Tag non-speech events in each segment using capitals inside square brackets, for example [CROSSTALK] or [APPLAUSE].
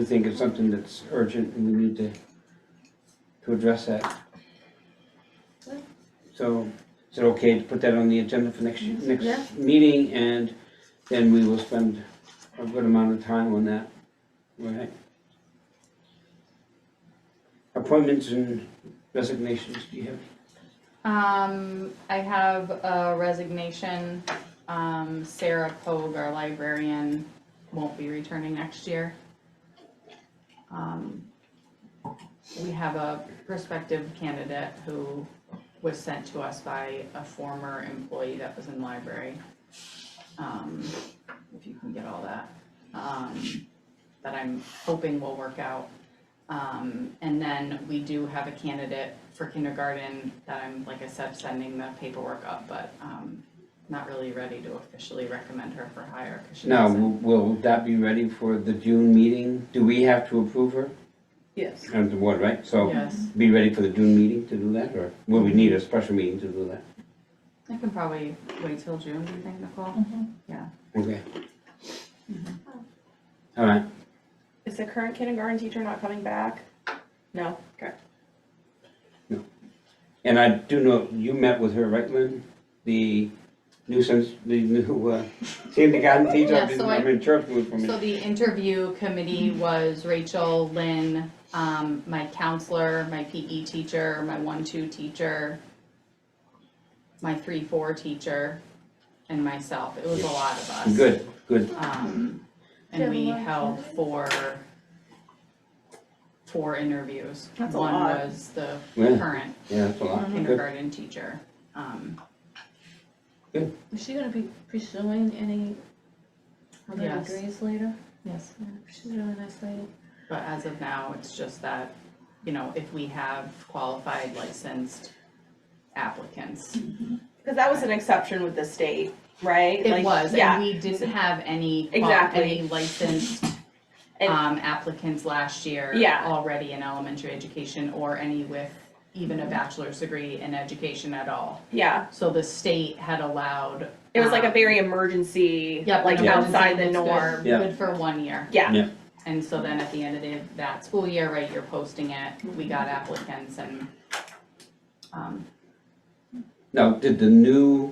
do think it's something that's urgent and we need to, to address that. Well. So, is it okay to put that on the agenda for next, Yeah. next meeting and then we will spend a good amount of time on that, right? Appointments and resignations, do you have? Um, I have a resignation, um, Sarah Pogue, our librarian, won't be returning next year. Um, we have a prospective candidate who was sent to us by a former employee that was in library. Um, if you can get all that, um, that I'm hoping will work out. Um, and then we do have a candidate for kindergarten that I'm, like I said, sending the paperwork up, but, um, not really ready to officially recommend her for hire, cause she Now, doesn't. will will that be ready for the June meeting? Do we have to approve her? Yes. And the board, right? So Yes, be ready for the June meeting to do that, or will we need a special meeting to do that? I can probably wait till June, do you think, Nicole? Okay. All right, Is the current kindergarten teacher not coming back? No. Okay. and I do know, you met with her, right, Lynn? The new sense, the new, uh, kindergarten teacher, Yeah, I've been- so I- I've been interpreting for a So minute. the interview committee was Rachel, Lynn, um, my counselor, my PE teacher, my one-two teacher, my three-four teacher, and myself. It was a lot of us. Good, good, Um, and we held four, four interviews. That's a One lot. was the Yeah. current yeah, that's a lot, good, kindergarten teacher. Um, Is she gonna be pursuing any other Yes. degrees later? yes. Yeah, She's a really nice lady. But as of now, it's just that, you know, if we have qualified licensed applicants. Because that was an exception with the state, right? It Like, was, and Yeah, we didn't have any, qual- Exactly. any licensed And- um, applicants last year Yeah. already in elementary education or any with even a bachelor's degree in education at all. yeah. So the state had allowed. It was like a um, very emergency, Yep, like an emergency outside the that's good- norm. Yeah. Good for one year. Yeah. Yeah. And so then at the end of the- that school year, right, you're posting it, we got applicants and, um, Now, did the new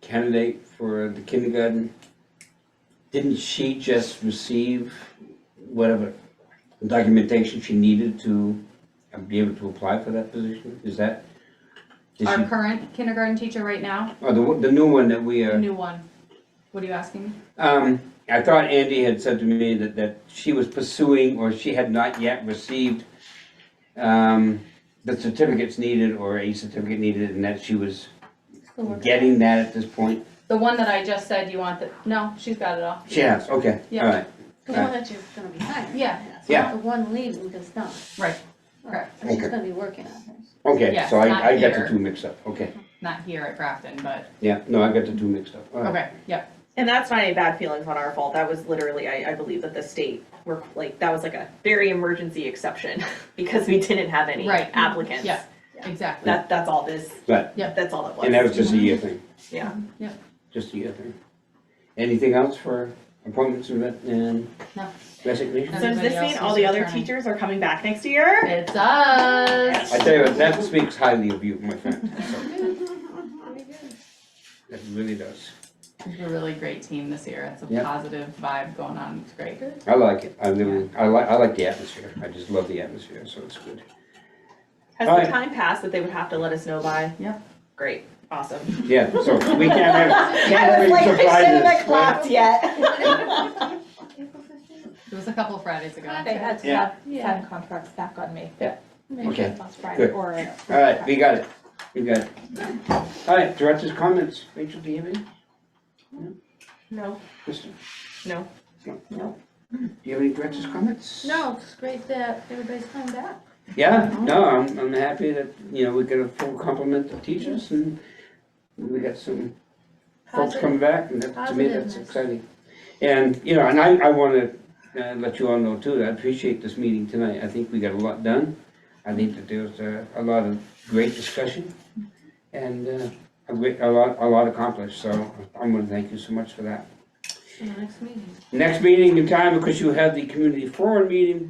candidate for the kindergarten, didn't she just receive whatever documentation she needed to be able to apply for that position? Is that, did our she, current kindergarten teacher right now, or the, one- the new one that we the are, new one, what are you asking? me? um, I thought Andy had said to me that, that she was pursuing or she had not yet received, um, the certificates needed or a certificate needed and that she was Still working. getting that at this point? The one that I just said you want, the no, she's got it all. She has, okay, all Yeah. right. The one that you're gonna be hiring. Yeah. It's Yeah. not the one leaving, because it's not. Right. Right. She's Okay. gonna be working on hers. Okay, Yes, so not I, I got the here. Mm-hmm. two mixed up, okay, Not here at Grafton, but, yeah, no, I got the two mixed up, alright, okay, yep, And that's not any bad feelings on our fault. That was literally, I, I believe that the state were like, that was like a very emergency exception [LAUGHS] because we didn't have any Right. applicants. Yeah. exactly. That, that's all this, right, that's all that was. and that was just a year thing, Yeah. just a year thing. Anything else for appointments and re- and No. resignations? So does Everybody this else mean is all the other returning. teachers are coming back next year? It's us. I tell you what, that speaks highly of you, my friend, [LAUGHS] that really does, We're a really great team this year, it's a Yeah. positive vibe going on, it's great. I like it, I really, I like, I like the atmosphere, I just love the atmosphere, so it's good. Has Alright. the time passed that they would have to let us know by? Yeah. Great, awesome. Yeah, so we can't [LAUGHS] [LAUGHS] have, can't have any surprises. right? yet. April fifteenth? It was a couple Fridays ago. They had Yeah. staff, Yeah. staff contracts back on me. Maybe Okay. that's Last right. Friday Good. or. Alright, we got it, we got it. Alright, director's comments, Rachel, do you have any? No, Kristen? No. No. No. Do you have any director's comments? [LAUGHS] No, it's great that everybody's coming back. Yeah, no, I'm, I'm happy that, you know, we got a full complement of teachers and we got some folks Positive. coming back and that, to me, that's Positiveness. exciting. And, you know, and I, I wanna, uh, let you all know too, that I appreciate this meeting tonight, I think we got a lot done. I think that there was uh, a, a lot of great discussion and, uh, a great, a lot, a lot accomplished, so I'm gonna thank you so much for that. in the next meeting. Next meeting in time, because you have the community forum meeting,